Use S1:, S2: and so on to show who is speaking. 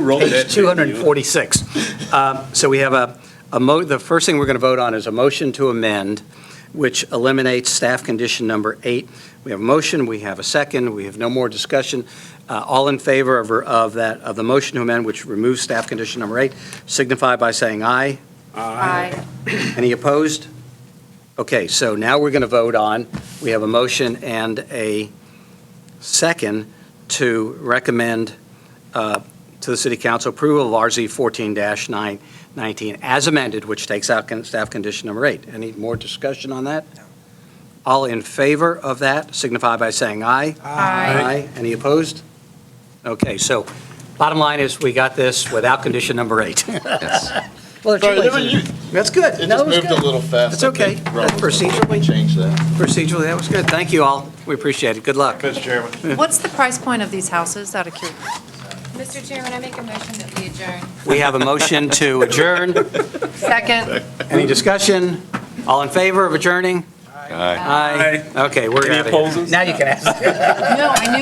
S1: Roll
S2: Page 246. Um, So we have a, a mo, the first thing we're going to vote on is a motion to amend, which eliminates staff condition number eight. We have a motion, we have a second, we have no more discussion. Uh, All in favor of, of that, of the motion to amend, which removes staff condition number eight, signify by saying aye.
S3: Aye.
S2: Any opposed? Okay, so now we're going to vote on, we have a motion and a second to recommend uh, to the city council approval of RZ 14-919 as amended, which takes out con- staff condition number eight. Any more discussion on that? All in favor of that signify by saying aye. Aye. Any opposed? Okay, so bottom line is, we got this without condition number eight. Well, there's two
S4: Sorry,
S2: ways
S4: there
S2: in
S4: were-
S2: it. That's good.
S4: It
S2: No, it
S4: just
S2: was
S4: moved a
S2: good.
S4: little fast.
S2: That's
S4: I think
S2: okay.
S4: Rob
S2: That's
S4: was gonna
S2: procedurally-
S4: Change that.
S2: Procedurally, that was good. Thank you all. We appreciate it. Good luck.
S4: Mr. Chairman.
S3: What's the price point of these houses out of curiosity?
S5: Mr. Chairman, I make a motion that we adjourn.
S2: We have a motion to adjourn.
S3: Second.
S2: Any discussion? All in favor of adjourning? Aye. Aye. Okay, we're
S1: Any
S2: out of here.
S1: opposers?
S2: Now you can ask.
S3: No, I knew